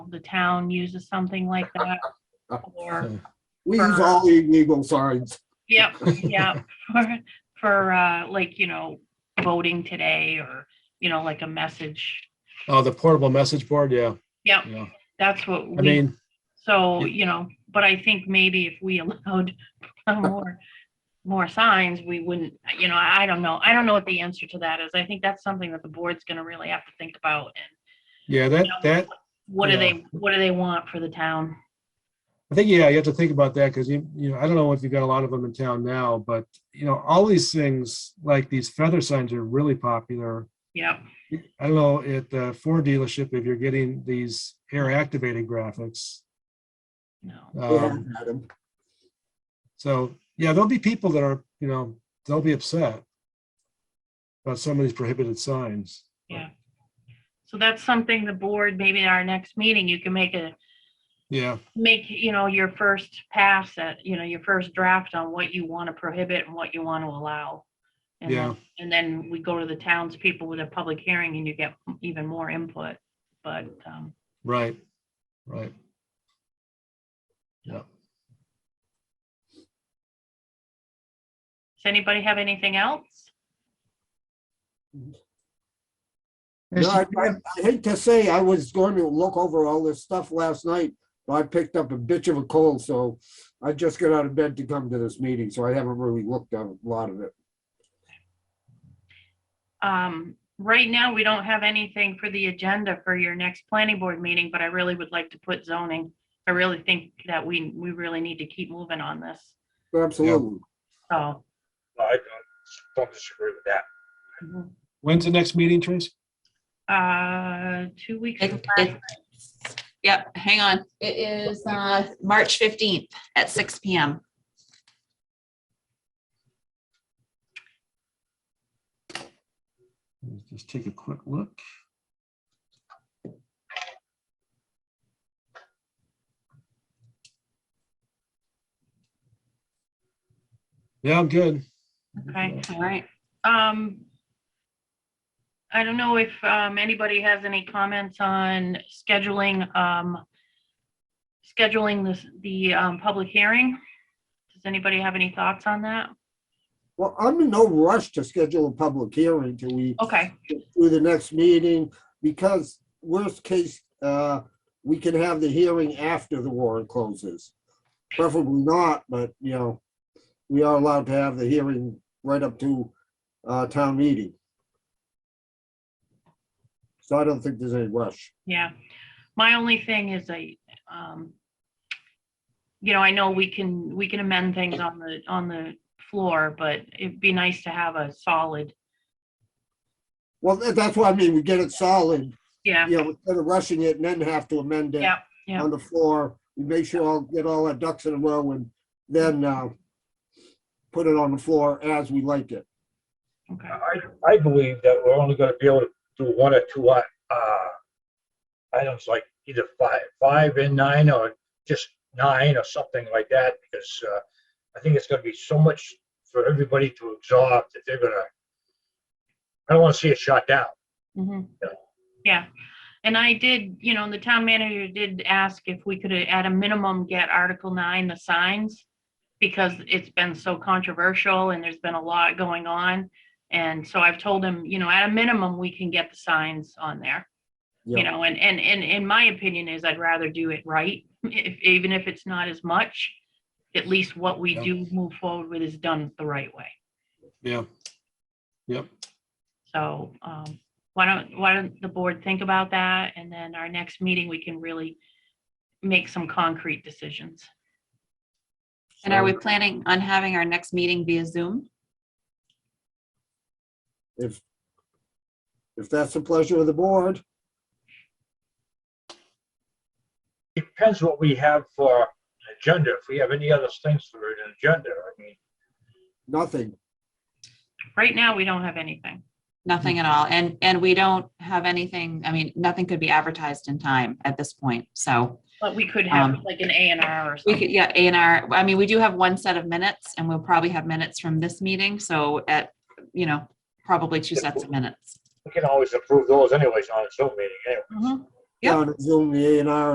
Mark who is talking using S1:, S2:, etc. S1: the town uses something like that. Or,
S2: So,
S3: We use
S1: For-
S3: all illegal signs.
S1: yep, yep, for, for, uh, like, you know, voting today or, you know, like a message.
S2: Oh, the portable message board, yeah,
S1: Yep,
S2: yeah.
S1: that's what
S2: I
S1: we,
S2: mean,
S1: so, you know, but I think maybe if we allowed more, more signs, we wouldn't, you know, I don't know. I don't know what the answer to that is. I think that's something that the board's gonna really have to think about and
S2: yeah, that, that,
S1: what do
S2: Yeah.
S1: they, what do they want for the town?
S2: I think, yeah, you have to think about that because you, you know, I don't know if you've got a lot of them in town now, but you know, all these things, like these feather signs are really popular.
S1: Yep,
S2: I don't know, at the Ford dealership, if you're getting these air activated graphics.
S1: no,
S3: We
S2: Um,
S3: haven't had 'em.
S2: so, yeah, there'll be people that are, you know, they'll be upset about some of these prohibited signs.
S1: yeah. So that's something the board, maybe at our next meeting, you can make a
S2: Yeah,
S1: make, you know, your first pass at, you know, your first draft on what you want to prohibit and what you want to allow. And
S2: Yeah.
S1: then, and then we go to the townspeople with a public hearing and you get even more input, but, um,
S2: right, right. Yeah.
S1: does anybody have anything else?
S3: No, I I- I hate to say, I was going to look over all this stuff last night, but I picked up a bitch of a cold, so I just got out of bed to come to this meeting, so I haven't really looked at a lot of it.
S1: Um, right now, we don't have anything for the agenda for your next planning board meeting, but I really would like to put zoning. I really think that we, we really need to keep moving on this,
S3: Absolutely.
S1: so.
S4: I don't, don't disagree with that.
S1: mhm.
S2: When's the next meeting, Trace?
S1: Uh, two weeks.
S5: It-
S1: from Friday.
S5: it's- Yep, hang on. It is uh, March 15th at six PM.
S2: Let's Just take a quick look. Yeah, I'm good.
S1: Okay.
S5: All right.
S1: Um, I don't know if, um, anybody has any comments on scheduling, um, scheduling this, the, um, public hearing. Does anybody have any thoughts on that?
S3: Well, I'm in no rush to schedule a public hearing till we
S1: Okay,
S3: through the next meeting, because worst case, uh, we can have the hearing after the warrant closes. Preferably not, but, you know, we are allowed to have the hearing right up to, uh, town meeting. So I don't think there's any rush.
S1: yeah. My only thing is I, um, you know, I know we can, we can amend things on the, on the floor, but it'd be nice to have a solid,
S3: Well, tha- that's what I mean, we get it solid,
S1: yeah,
S3: you know, instead of rushing it and then have to amend it
S1: Yeah, yeah.
S3: on the floor. We make sure I'll get all our ducks in a row and then, uh, put it on the floor as we like it.
S1: okay.
S4: I, I believe that we're only gonna be able to do one or two, uh, uh, items like either five, five and nine or just nine or something like that, because, uh, I think it's gonna be so much for everybody to absorb that they're gonna, I don't wanna see it shot down.
S1: Mhm.
S4: Yeah.
S1: Yeah, and I did, you know, the town manager did ask if we could, at a minimum, get Article nine, the signs. Because it's been so controversial and there's been a lot going on. And so I've told him, you know, at a minimum, we can get the signs on there. You
S3: Yeah.
S1: know, and, and, and, in my opinion is I'd rather do it right, if, even if it's not as much. At least what we
S2: Yeah.
S1: do move forward with is done the right way.
S2: Yeah. Yep.
S1: So um, why don't, why don't the board think about that? And then our next meeting, we can really make some concrete decisions.
S5: And are we planning on having our next meeting via Zoom?
S3: If, if that's the pleasure of the board,
S4: Depends what we have for an agenda, if we have any other things for an agenda, I mean,
S3: nothing.
S1: Right now, we don't have anything.
S5: Nothing at all. And, and we don't have anything, I mean, nothing could be advertised in time at this point. So
S1: But we could have
S5: Um,
S1: like an A and R or
S5: we
S1: something.
S5: could, yeah, A and R, I mean, we do have one set of minutes and we'll probably have minutes from this meeting. So at, you know, probably two sets of minutes. Mm-hmm.
S4: we can always approve those anyways on a Zoom meeting anyway.
S1: Mhm.
S5: Yep.
S3: Down at Zoom, the A and R